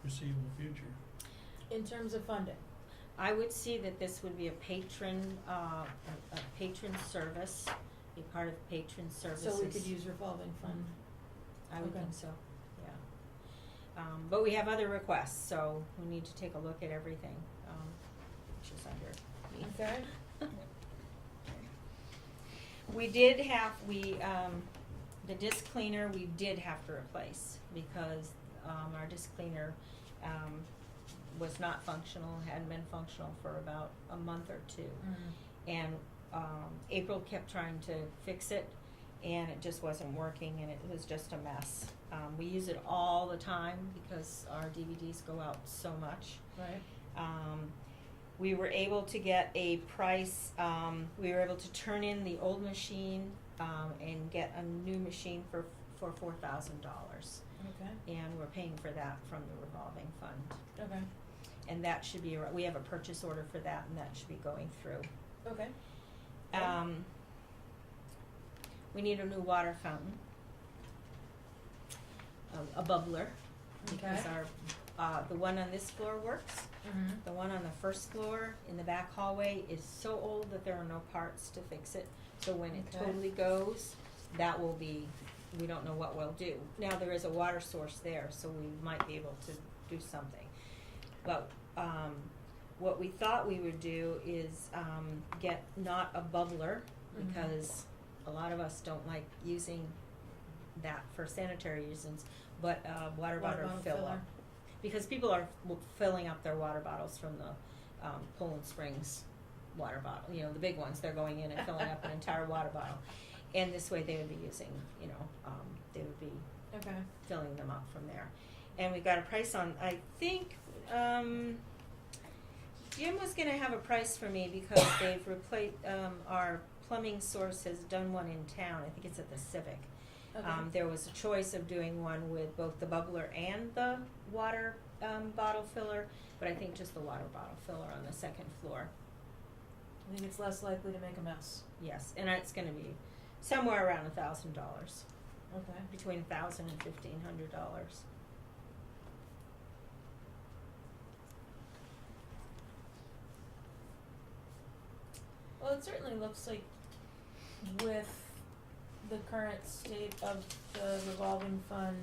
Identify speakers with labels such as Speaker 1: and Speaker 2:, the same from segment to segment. Speaker 1: foreseeable future.
Speaker 2: In terms of funding,
Speaker 3: I would see that this would be a patron, uh, a a patron service, be part of patron services.
Speaker 2: so we could use revolving fund.
Speaker 3: I would
Speaker 2: Okay.
Speaker 3: think so, yeah. Um, but we have other requests, so we need to take a look at everything, um, which is under me.
Speaker 2: Okay.
Speaker 3: We did have, we, um, the disc cleaner, we did have to replace because, um, our disc cleaner, um, was not functional, hadn't been functional for about a month or two.
Speaker 2: Mm-hmm.
Speaker 3: And, um, April kept trying to fix it and it just wasn't working and it was just a mess. Um, we use it all the time because our DVDs go out so much.
Speaker 2: Right.
Speaker 3: Um, we were able to get a price, um, we were able to turn in the old machine, um, and get a new machine for, for four thousand dollars.
Speaker 2: Okay.
Speaker 3: And we're paying for that from the revolving fund.
Speaker 2: Okay.
Speaker 3: And that should be, ar- we have a purchase order for that and that should be going through.
Speaker 2: Okay.
Speaker 3: Um, we need a new water fountain. Um, A, a bubbler, because
Speaker 2: Okay.
Speaker 3: our, uh, the one on this floor works.
Speaker 2: Mhm.
Speaker 3: The one on the first floor in the back hallway is so old that there are no parts to fix it. So when it
Speaker 2: Okay.
Speaker 3: totally goes, that will be, we don't know what we'll do. Now, there is a water source there, so we might be able to do something. But, um, what we thought we would do is, um, get not a bubbler,
Speaker 2: Mhm.
Speaker 3: because a lot of us don't like using that for sanitary reasons, but, uh, water bottle fill up because people are w- filling up their water bottles from the um, Poland Springs water bottle. You know, the big ones. They're going in and filling up an entire water bottle, and this way they would be using. You know, um, they would be
Speaker 2: Okay.
Speaker 3: filling them up from there. And we got a price on. I think um, Jim was going to have a price for me because they've replaced um, our plumbing source has done one in town. I think it's at the Civic.
Speaker 2: Okay.
Speaker 3: Um, there was a choice of doing one with both the bubbler and the water um, bottle filler, but I think just the water bottle filler on the second floor.
Speaker 2: I think it's less likely to make a mess.
Speaker 3: Yes, and it's going to be somewhere around a thousand dollars,
Speaker 2: Okay.
Speaker 3: between a thousand and fifteen hundred dollars.
Speaker 2: Well, it certainly looks like with the current state of the revolving fund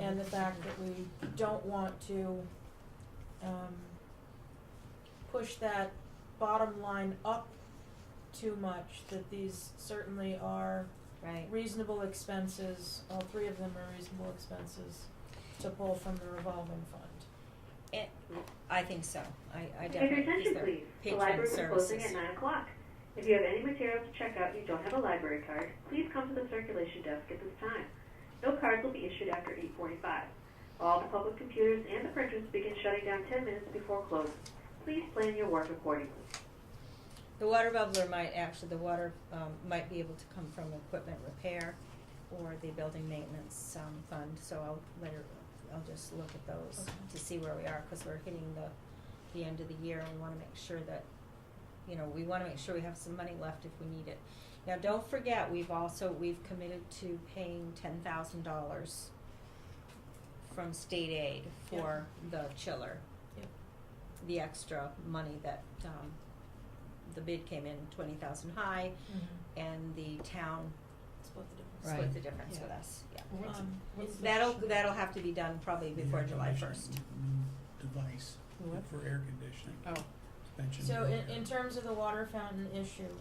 Speaker 2: and the fact that we don't want to um push that bottom line up too much, that these certainly are
Speaker 3: right,
Speaker 2: reasonable expenses, all three of them are reasonable expenses to pull from the revolving fund.
Speaker 3: It- I think so. I, I
Speaker 4: Pay your
Speaker 3: definitely
Speaker 4: attention,
Speaker 3: think so.
Speaker 4: please. The
Speaker 3: Patron
Speaker 4: library is closing
Speaker 3: services.
Speaker 4: at nine o'clock. If you have any materials to check out and you don't have a library card, please come to the circulation desk at this time. No cards will be issued after eight forty-five. All the public computers and the printers begin shutting down ten minutes before close. Please plan your work accordingly.
Speaker 3: The water bubbler might actually, the water, um, might be able to come from equipment repair or the building maintenance, um, fund, so I'll let her, I'll just look at those
Speaker 2: Okay.
Speaker 3: to see where we are, cause we're hitting the, the end of the year, and we wanna make sure that, you know, we wanna make sure we have some money left if we need it. Now, don't forget, we've also, we've committed to paying ten thousand dollars from state aid
Speaker 2: Yep.
Speaker 3: for the chiller
Speaker 2: Yep.
Speaker 3: the extra money that um the bid came in twenty thousand high and the town
Speaker 2: Split the difference.
Speaker 3: split
Speaker 5: Right.
Speaker 3: the difference with us, yeah.
Speaker 1: What's-
Speaker 2: Um,
Speaker 1: what's the-
Speaker 3: That'll that'll have to be done probably before
Speaker 1: air
Speaker 3: July
Speaker 1: conditioning
Speaker 3: first.
Speaker 1: Device
Speaker 5: What?
Speaker 1: for air conditioning.
Speaker 5: Oh.
Speaker 1: Mentioned
Speaker 2: So in,
Speaker 1: earlier.
Speaker 2: in terms of the water fountain issue,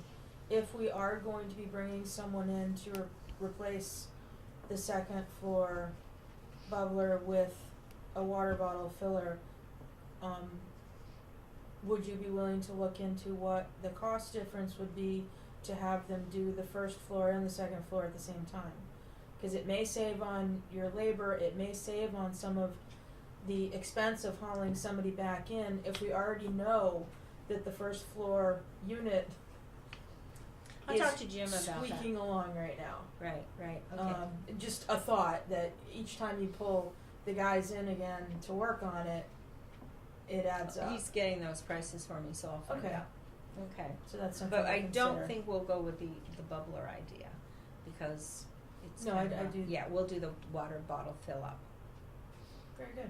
Speaker 2: if we are going to be bringing someone in to re- replace the second floor bubbler with a water bottle filler, um, would you be willing to look into what the cost difference would be to have them do the first floor and the second floor at the same time? Cause it may save on your labor, it may save on some of the expense of hauling somebody back in if we already know that the first floor unit
Speaker 3: I'll
Speaker 2: is
Speaker 3: talk to Jim about that.
Speaker 2: squeaking along right now.
Speaker 3: Right, right, okay,
Speaker 2: Um, just a thought that each time you pull the guys in again to work on it, it adds up.
Speaker 3: he's getting those prices for me, so I'll find
Speaker 2: Okay.
Speaker 3: out, okay.
Speaker 2: So that's something.
Speaker 3: But
Speaker 2: to
Speaker 3: I don't
Speaker 2: consider.
Speaker 3: think we'll go with the the bubbler idea, because it's
Speaker 2: No, I-
Speaker 3: kinda-
Speaker 2: I do-
Speaker 3: Yeah, we'll do the water bottle fill up.
Speaker 2: Very good.